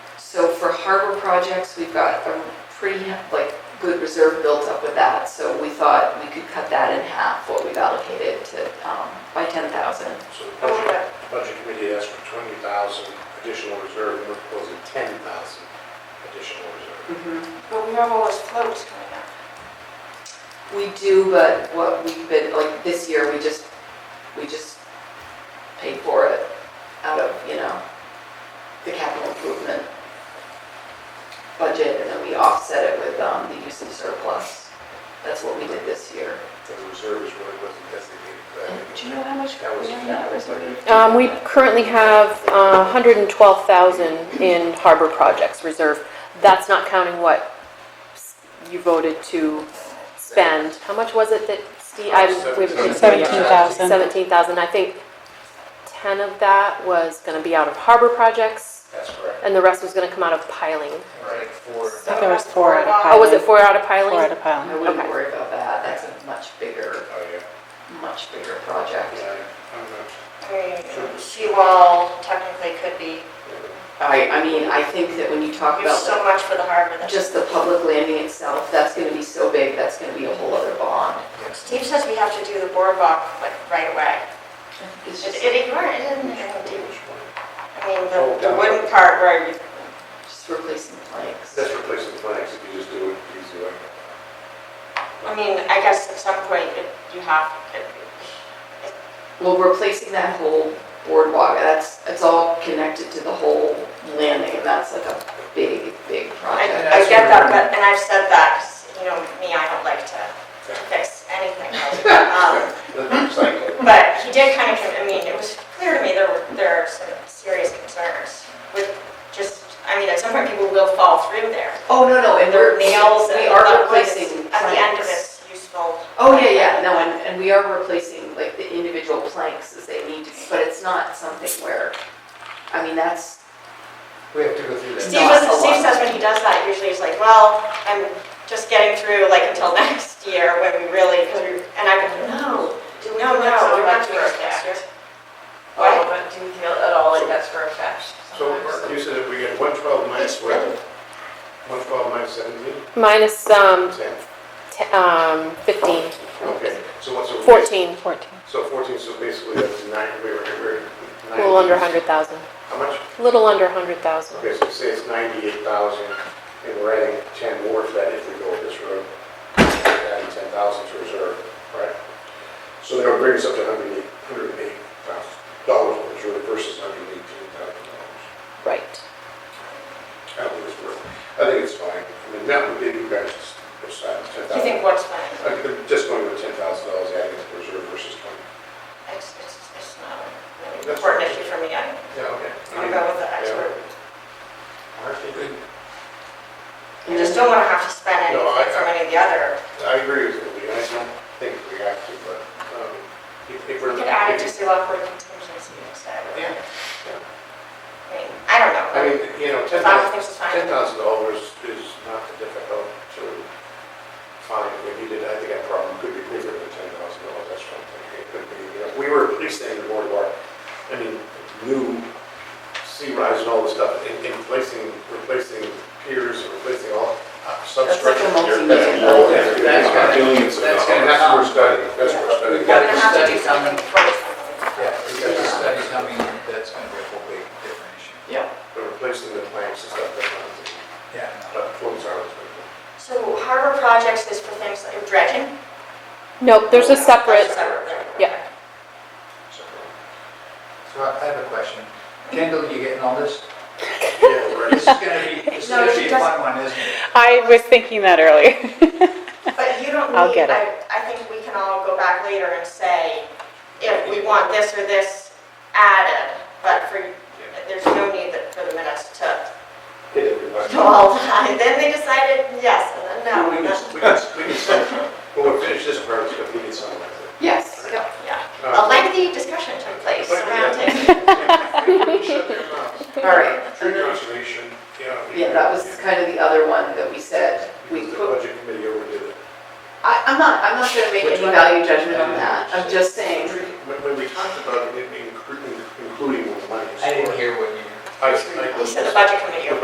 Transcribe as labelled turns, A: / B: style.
A: harbor projects, we've got a pretty, like, good reserve built up with that, so we thought we could cut that in half, what we've allocated to, um, by ten thousand.
B: So the budget, budget committee asked for twenty thousand additional reserve, and we're proposing ten thousand additional reserve.
A: Mm-hmm.
C: But we have all those floats coming up.
A: We do, but what we've been, like, this year, we just, we just paid for it out of, you know, the capital improvement budget, and then we offset it with, um, the use of surplus. That's what we did this year.
B: The reserve is really wasn't designated for
D: Oh,
B: that.
A: Do you know how much
B: That was-
A: we have in that reserve?
D: Um, we currently have uh, 112,000 in harbor projects reserve. That's not counting what s- you voted to spend. How much was it that Steve, I, we haven't been through yet.
E: 17,000.
D: 17,000, I think 10 of that was gonna be out of harbor projects,
B: That's correct.
D: and the rest was gonna come out of piling.
B: Right, for,
E: I think there was four out of
D: Oh, was it
E: piling.
D: four out of
E: Four out
D: piling?
E: of piling.
A: I wouldn't
D: Okay.
A: worry about that, that's a much bigger,
B: oh, yeah,
A: much bigger
B: yeah,
A: project.
B: I don't know.
C: I mean, Seawall technically could be,
A: I, I mean, I think that when you talk
C: there's
A: about the
C: so much for the harbor that.
A: just the public landing itself, that's gonna be so big, that's gonna be a whole other bond.
C: Steve says we have to do the boardwalk like right away.
A: It's
C: It
A: just,
C: it ignored, it didn't,
D: Oh,
C: it didn't- I mean,
B: Oh,
C: the- the
B: God.
C: wooden part where you,
A: just replacing the planks.
B: That's replacing flags, if you just do it easy way.
C: I mean, I guess at some point it- you have, it-
A: Well, replacing that whole boardwalk, that's, it's all connected to the whole landing, and that's like a big, big
C: I
A: project.
C: I get that, but, and I've said that, 'cause, you know, me, I don't like to to fix anything. Um,
B: That's recycling.
C: But he did kind of, I mean, it was clear to me there were, there are some serious concerns with just, I mean, at some point people will fall through there.
A: Oh, no, no, and we're,
C: There are nails and.
A: we are
C: but what is-
A: replacing planks.
C: At the end of it's useful.
A: Oh, yeah, yeah, no, and, and we are replacing like the individual planks as they need to, be, but it's not something where, I mean, that's,
F: We have to go through that.
C: Steve,
A: Not a
C: was-
A: lot.
C: Steve says when he does that, usually he's like, well, I'm just getting through like until next year when we really, because we, and I'm like, no, no, no, we're not doing this.
B: Oh,
G: Well, but do you feel at all like that's for a fact?
B: So you said if we get one twelve minus what? One twelve minus seventeen,
D: Minus, um,
B: ten?
D: t- um, 15,
B: Okay, so what's? so-
D: 14,
E: 14.
B: So fourteen, so basically that's nine, we were, we were.
D: a little under 100,000,
B: How much?
D: a little under 100,000.
B: Okay, so say it's ninety-eight thousand, and we're adding ten more to that if we go with this road. We're Adding ten thousand to reserve, right? So that would bring us up to hundred and eight, hundred and eight thousand dollars for reserve versus hundred and eighteen thousand dollars.
D: Right.
B: I don't think it's worth, I think it's fine. I mean, that would be, you guys just decide ten
C: Do you think
B: thousand.
C: what's funny?
B: I'm just going with ten thousand dollars adding to the reserve versus twenty.
C: It's, it's, it's not a really
B: That's
C: important
B: fine.
C: issue for me. I
B: Yeah, okay.
C: want to go with the expert.
B: I
C: I just don't want to have to spend
B: No, I-
C: anything from any of the other.
B: agree with you, I don't think we have to, but, um, if if we're.
C: We could add it to see what we're contingency instead.
B: Yeah,
C: I
B: yeah.
C: mean, I don't know.
B: I mean, you know, ten thousand,
C: Five things is
B: ten
C: fine.
B: thousand dollars is not difficult to find. If you did, I think that problem could be bigger than ten thousand dollars, that's one thing. It could be, you know, we were replacing the boardwalk, I mean, new sea rise and all this stuff, and and replacing, replacing piers, and replacing all uh,
A: that's like
B: substructure.
A: a multi-million
F: That's-
A: dollar.
B: That's
F: That's gotta-
B: billions of
F: that's
B: dollars.
F: gotta
B: That's what we're
F: come.
B: studying, that's what we're studying.
F: We've got
C: We're gonna have to do
F: study coming.
C: something first.
F: Yeah, we got a study coming, that's gonna be a whole big different issue.
A: Yeah.
B: But replacing the planks and stuff, that's not, a thing.
F: Yeah.
B: but floats are. a thing.
C: So harbor projects is for things like dredging?
D: Nope, there's a separate,
C: That's separate, right.
D: yeah.
B: So,
F: So I I have a question. Kendall, you getting all this?
B: Yeah, we're.
F: This is gonna be, this is
C: No,
F: gonna
C: she
F: be a fun one, isn't it?
E: I was thinking that earlier.
C: But you don't need.
E: I'll get it.
C: I- I think we can all go back later and say, if we want this or this added, but for, there's no need that- for the minutes to,
B: Hit everybody.
C: to all die. Then they decided yes, and then no.
B: We can,
C: and then-
B: we can, we can start, when we finish this part, it's gonna be in some way.
A: Yes, yep.
C: Yeah, a
B: Uh,
C: lengthy discussion took place
B: But-
C: around it.
B: Shut their mouths.
A: All right.
B: Tree conservation, yeah.
A: Yeah, that was kind of the other one that we said, we
B: Because The
A: put,
B: budget committee overdid it.
A: I, I'm not, I'm not gonna make any value judgment on that, I'm just saying,
B: When, when we talked about it, including, including what money. is
F: I didn't
B: for.
F: hear what you.
B: I- I-
C: He said the budget committee.